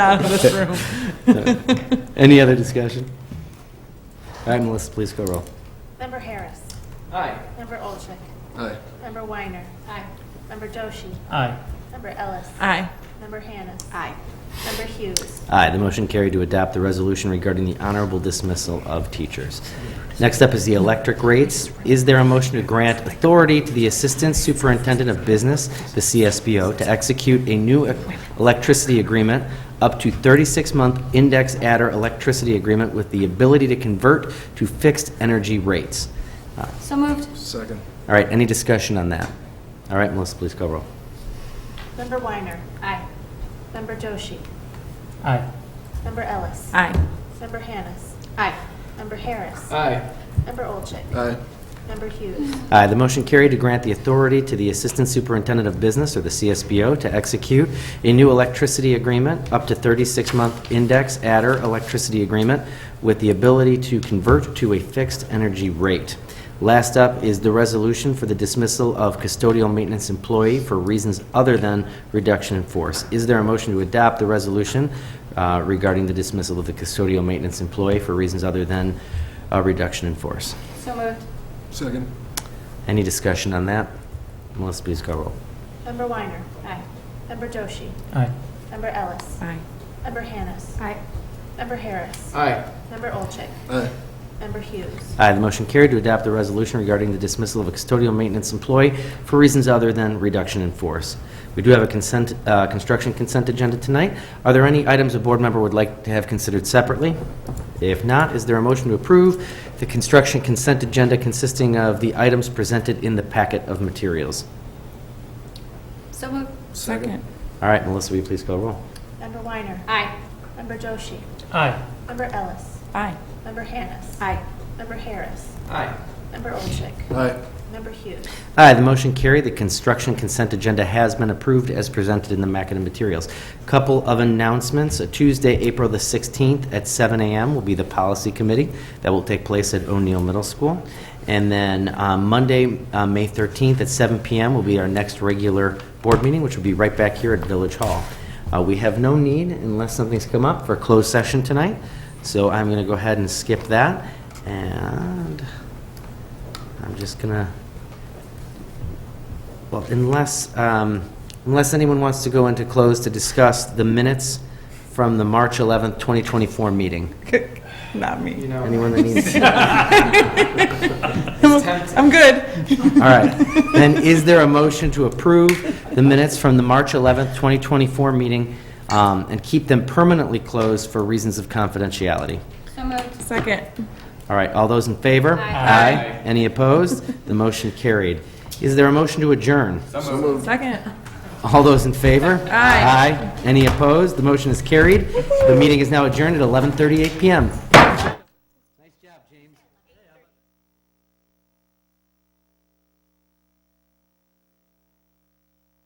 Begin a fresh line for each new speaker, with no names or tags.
out of this room.
Any other discussion? All right, Melissa, please go roll.
Member Harris.
Aye.
Member Olchek.
Aye.
Member Weiner. Aye. Member Doshi.
Aye.
Member Ellis.
Aye.
Member Hannis. Aye. Member Hughes.
Aye, the motion carried to adopt the resolution regarding the honorable dismissal of teachers. Next up is the electric rates. Is there a motion to grant authority to the Assistant Superintendent of Business, the CSBO, to execute a new electricity agreement up to 36-month index adder electricity agreement with the ability to convert to fixed energy rates? Uh,
So moved.
Second.
All right, any discussion on that? All right, Melissa, please go roll.
Member Weiner. Aye. Member Doshi.
Aye.
Member Ellis.
Aye.
Member Hannis.
Aye.
Member Harris.
Aye.
Member Olchek.
Aye.
Member Hughes.
Aye, Uh, the motion carried to grant the authority to the Assistant Superintendent of Business, or the CSBO, to execute a new electricity agreement, up to 36-month index adder electricity agreement, with the ability to convert to a fixed energy rate. Last up is the resolution for the dismissal of custodial maintenance employee for reasons other than reduction in force. Is there a motion to adopt the resolution uh, regarding the dismissal of the custodial maintenance employee for reasons other than uh, reduction in force?
So moved.
Second.
Any discussion on that? Melissa, please go roll.
Member Weiner.
Aye.
Member Doshi.
Aye.
Member Ellis.
Aye.
Member Hannis.
Aye.
Member Harris.
Aye.
Member Olchek.
Aye.
Member Hughes.
Aye, the motion carried to adopt the resolution regarding the dismissal of a custodial maintenance employee for reasons other than reduction in force. We do have a consent, uh, construction consent agenda tonight. Are there any items a board member would like to have considered separately? If not, is there a motion to approve the construction consent agenda consisting of the items presented in the packet of materials?
So moved.
Second.
All right, Melissa, will you please go roll?
Member Weiner.
Aye.
Member Doshi.
Aye.
Member Ellis.
Aye.
Member Hannis.
Aye.
Member Harris.
Aye.
Member Olchek.
Aye.
Member Hughes.
Aye, the motion carried. The construction consent agenda has been approved as presented in the packet of materials. Couple of announcements. Uh, Tuesday, April the 16th at 7 a.m. will be the policy committee. That will take place at O'Neill Middle School. And then uh, Monday, uh, May 13th at 7 p.m. will be our next regular board meeting, which will be right back here at Village Hall. Uh, We have no need, unless something's come up, for a closed session tonight. So I'm going to go ahead and skip that. And I'm just going to well, unless, um, unless anyone wants to go into close to discuss the minutes from the March 11th, 2024 meeting.
Not me.
Anyone that needs, all
I'm good.
right. Then is there a motion to approve the minutes from the March 11th, 2024 meeting um, and keep them permanently closed for reasons of confidentiality?
So moved.
Second.
All right, all those in favor?
Aye.
Any opposed? The motion carried. Is there a motion to adjourn?
So moved.
Second.
All those in favor?
Aye.
Aye. Any opposed? The motion is carried. The meeting is now adjourned at 11:38 PM.